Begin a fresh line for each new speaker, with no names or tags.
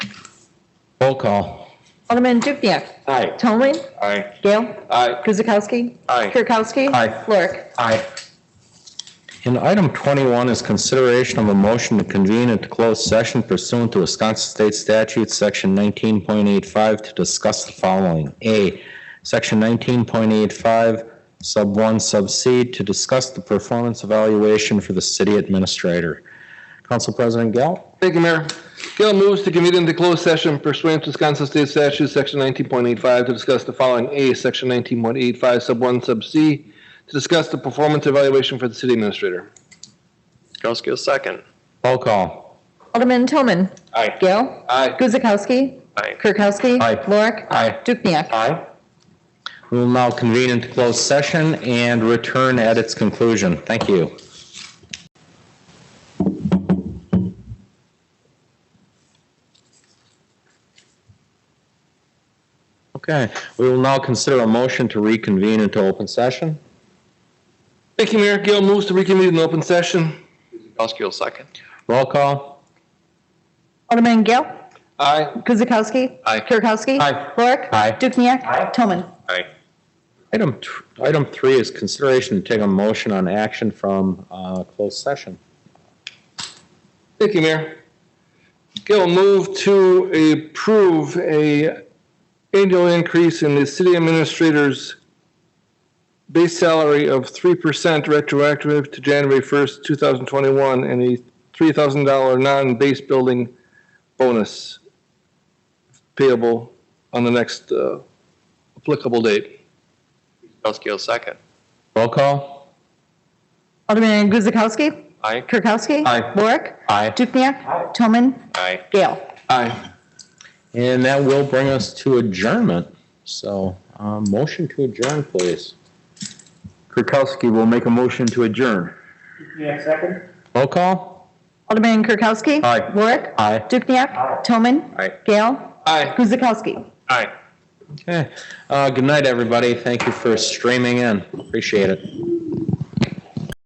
Roll call.
Alderman Dukniak.
Aye.
Tomlin.
Aye.
Gale.
Aye.
Guzekowski.
Aye.
Kirkowski.
Aye.
Lorik.
Aye. And item 21 is consideration of a motion to convene into closed session pursuant to Wisconsin State Statute, Section 19.85, to discuss the following. A, Section 19.85, Sub 1, Sub C, to discuss the performance evaluation for the city administrator. Council President Gale?
Thank you, Mayor. Gail moves to convene into closed session pursuant to Wisconsin State Statute, Section 19.85, to discuss the following. A, Section 19.85, Sub 1, Sub C, to discuss the performance evaluation for the city administrator.
Kirkowski, second.
Roll call.
Alderman Toman.
Aye.
Gale.
Aye.
Guzekowski.
Aye.
Kirkowski.
Aye.
Lorik.
Aye.
Dukniak.
Aye. We will now convene into closed session and return at its conclusion. Thank you. Okay, we will now consider a motion to reconvene into open session.
Thank you, Mayor. Gail moves to reconvene in open session.
Kirkowski, second.
Roll call.
Alderman Gale.
Aye.
Guzekowski.
Aye.
Kirkowski.
Aye.
Lorik.
Aye.
Dukniak. Toman.
Aye.
Item, tr- item three is consideration to take a motion on action from uh, closed session.
Thank you, Mayor. Gail move to approve a annual increase in the city administrator's base salary of 3% retroactive to January 1st, 2021, and a $3,000 non-base building bonus payable on the next uh, applicable date.
Kirkowski, second.
Roll call.
Alderman Guzekowski.
Aye.
Kirkowski.
Aye.
Lorik.
Aye.
Dukniak. Toman.
Aye.
Gale.
Aye.
And that will bring us to adjournment. So, um, motion to adjourn, please.
Kirkowski will make a motion to adjourn.
Dukniak, second.
Roll call?
Alderman Kirkowski.
Aye.
Lorik.
Aye.
Dukniak. Toman.
Aye.
Gale.
Aye.
Guzekowski.
Aye.
Okay. Uh, good night, everybody. Thank you for streaming in. Appreciate it.